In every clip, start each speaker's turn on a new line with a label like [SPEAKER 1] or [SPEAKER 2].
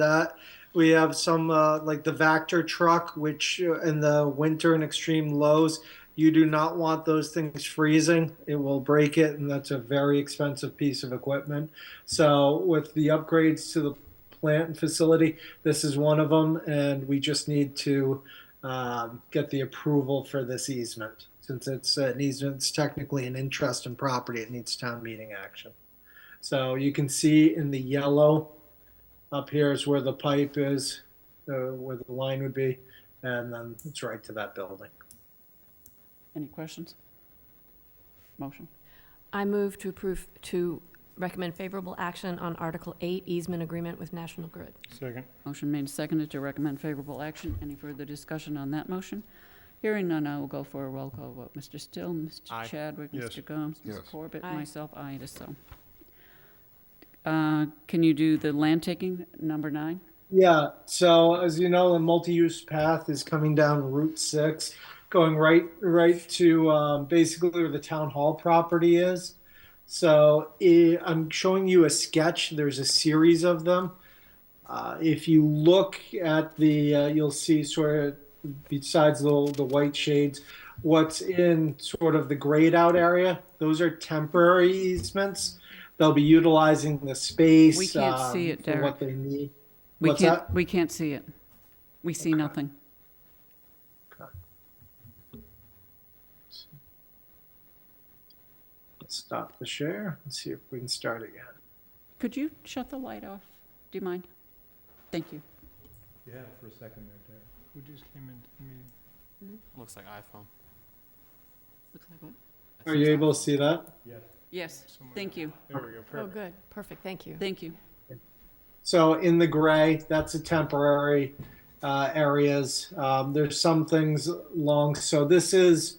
[SPEAKER 1] that. We have some uh, like the Vactor truck, which uh, in the winter and extreme lows, you do not want those things freezing. It will break it, and that's a very expensive piece of equipment. So, with the upgrades to the plant and facility, this is one of them, and we just need to um, get the approval for this easement. Since it's an easement, it's technically an interest in property, it needs town meeting action. So, you can see in the yellow up here is where the pipe is, uh, where the line would be, and then it's right to that building.
[SPEAKER 2] Any questions? Motion?
[SPEAKER 3] I move to approve, to recommend favorable action on Article 8 easement agreement with National Grid.
[SPEAKER 4] Second.
[SPEAKER 2] Motion made and seconded to recommend favorable action. Any further discussion on that motion? Hearing none, I will go for a roll call vote. Mr. Still, Mr. Chadwick,
[SPEAKER 4] Yes.
[SPEAKER 2] Mr. Gomes, Ms.
[SPEAKER 5] Yes.
[SPEAKER 2] Corbett,
[SPEAKER 3] Aye.
[SPEAKER 2] myself, I it is so. Uh, Can you do the land taking, number nine?
[SPEAKER 1] Yeah, so as you know, the multi-use path is coming down Route Six, going right right to um, basically where the town hall property is. So i I'm showing you a sketch. There's a series of them. Uh, if you look at the, uh, you'll see sort of besides the the white shades, what's in sort of the grayed out area. Those are temporary easements. They'll be utilizing the space.
[SPEAKER 2] We can't
[SPEAKER 1] um,
[SPEAKER 2] see it,
[SPEAKER 1] for What they need.
[SPEAKER 2] We
[SPEAKER 1] What's
[SPEAKER 2] can't.
[SPEAKER 1] that?
[SPEAKER 2] We can't see it. We see nothing.
[SPEAKER 1] Let's stop the share and see if we can start again.
[SPEAKER 2] Could you shut the light off? Do you mind? Thank you.
[SPEAKER 6] You had it for a second there, Derek.
[SPEAKER 4] Who just came into the meeting?
[SPEAKER 7] Looks like iPhone.
[SPEAKER 2] Looks like what?
[SPEAKER 1] Are you able to see that?
[SPEAKER 6] Yes.
[SPEAKER 2] Yes,
[SPEAKER 4] Someone-
[SPEAKER 2] thank you,
[SPEAKER 4] There we go,
[SPEAKER 3] Oh,
[SPEAKER 4] perfect.
[SPEAKER 3] good, perfect, thank you.
[SPEAKER 2] thank you.
[SPEAKER 1] So in the gray, that's a temporary uh, areas. Um, there's some things long. So this is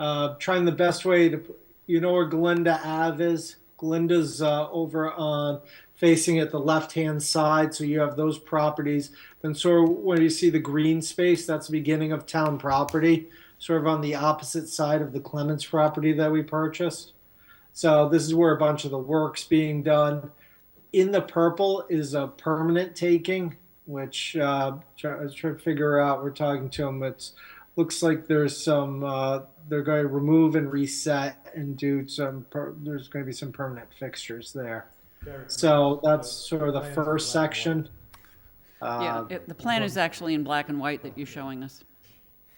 [SPEAKER 1] uh, trying the best way to, you know where Glinda Ave is? Glinda's uh, over on facing at the left-hand side. So you have those properties. Then sort of where you see the green space, that's the beginning of town property, sort of on the opposite side of the Clements property that we purchased. So this is where a bunch of the work's being done in the purple is a permanent taking, which uh, try, I was trying to figure out. We're talking to them. It looks like there's some. Uh, they're going to remove and reset and do some. Per, there's going to be some permanent fixtures there.
[SPEAKER 6] Derek,
[SPEAKER 1] So that's sort of the
[SPEAKER 6] Plans are
[SPEAKER 1] first
[SPEAKER 6] black
[SPEAKER 1] section.
[SPEAKER 6] and white.
[SPEAKER 2] Yeah,
[SPEAKER 1] Uh,
[SPEAKER 2] it- the plan is actually in black and white that you're showing us.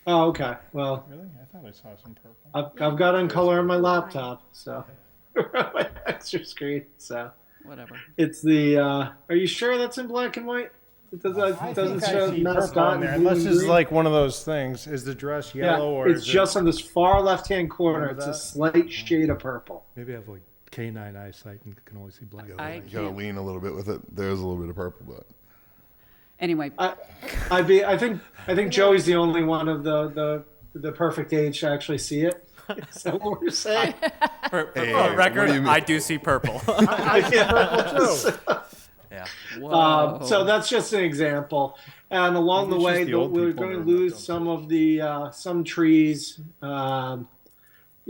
[SPEAKER 1] oh, okay. Well,
[SPEAKER 4] Really? I thought I saw some purple.
[SPEAKER 1] I've, I've got on color on my laptop, so my extra screen. So
[SPEAKER 2] Whatever.
[SPEAKER 1] it's the. Uh, are you sure that's in black and white? It doesn't,
[SPEAKER 6] I
[SPEAKER 1] it doesn't
[SPEAKER 6] think I
[SPEAKER 1] show
[SPEAKER 6] see
[SPEAKER 1] mascot
[SPEAKER 6] purple on
[SPEAKER 1] and
[SPEAKER 6] there,
[SPEAKER 1] blue
[SPEAKER 6] Unless
[SPEAKER 1] and
[SPEAKER 6] it's
[SPEAKER 1] green?
[SPEAKER 6] like one of those things, is the dress
[SPEAKER 1] Yeah,
[SPEAKER 6] yellow or
[SPEAKER 1] it's
[SPEAKER 6] is it?
[SPEAKER 1] just on this far left-hand corner.
[SPEAKER 6] Remember
[SPEAKER 1] It's a
[SPEAKER 6] that?
[SPEAKER 1] slight shade of purple.
[SPEAKER 8] Maybe I have like canine eyesight and can only see black.
[SPEAKER 5] You
[SPEAKER 2] I
[SPEAKER 5] gotta, you gotta
[SPEAKER 2] can't-
[SPEAKER 5] lean a little bit with it. There's a little bit of purple, but
[SPEAKER 2] Anyway,
[SPEAKER 1] I, I'd be. I think. I think Joey's the only one of the the the perfect age to actually see it. Is that what we're saying?
[SPEAKER 7] For, for
[SPEAKER 5] Hey,
[SPEAKER 7] for
[SPEAKER 5] hey,
[SPEAKER 7] record,
[SPEAKER 5] what do you mean?
[SPEAKER 7] I do see purple. yeah.
[SPEAKER 2] whoa.
[SPEAKER 1] Um, so that's just an example. And along the
[SPEAKER 6] Oh. Maybe it's
[SPEAKER 1] way,
[SPEAKER 6] just the old
[SPEAKER 1] we're
[SPEAKER 6] people
[SPEAKER 1] going to
[SPEAKER 6] that are not
[SPEAKER 1] lose
[SPEAKER 6] dumb.
[SPEAKER 1] some of the uh, some trees. Um,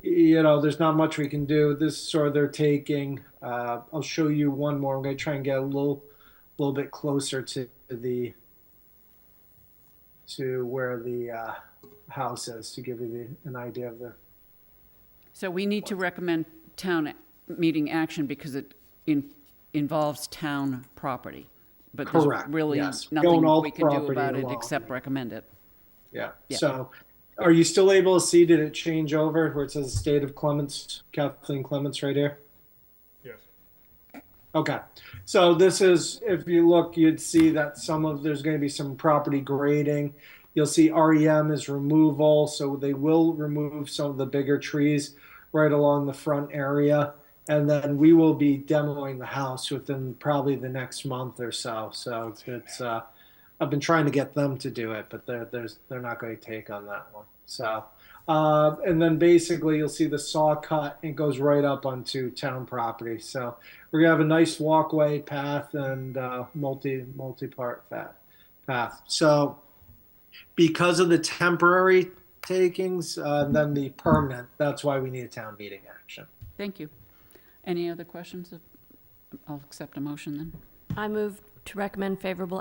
[SPEAKER 1] you know, there's not much we can do. This is sort of they're taking. Uh, I'll show you one more. I'm going to try and get a little, little bit closer to the, to where the uh, house is to give you the, an idea of the.
[SPEAKER 2] so we need to recommend town meeting action because it in- involves town property. But there's
[SPEAKER 1] Correct,
[SPEAKER 2] really
[SPEAKER 1] yes. Going all
[SPEAKER 2] nothing we can do
[SPEAKER 1] property
[SPEAKER 2] about it
[SPEAKER 1] along.
[SPEAKER 2] except recommend it.
[SPEAKER 1] Yeah.
[SPEAKER 2] Yeah.
[SPEAKER 1] So, are you still able to see? Did it change over where it says "State of Clements"? Kathleen Clements, right here.
[SPEAKER 4] Yes.
[SPEAKER 1] Okay, so this is, if you look, you'd see that some of, there's gonna be some property grading. You'll see REM is removal, so they will remove some of the bigger trees right along the front area. And then we will be demoing the house within probably the next month or so, so it's- it's, uh, I've been trying to get them to do it, but they're, there's, they're not gonna take on that one, so. Uh, and then basically you'll see the saw cut and goes right up onto town property, so we're gonna have a nice walkway path and uh, multi multi part path. So because of the temporary takings uh, and then the permanent, that's why we need a town meeting action.
[SPEAKER 2] Thank you. Any other questions? I'll accept a motion then.
[SPEAKER 3] I move to recommend favorable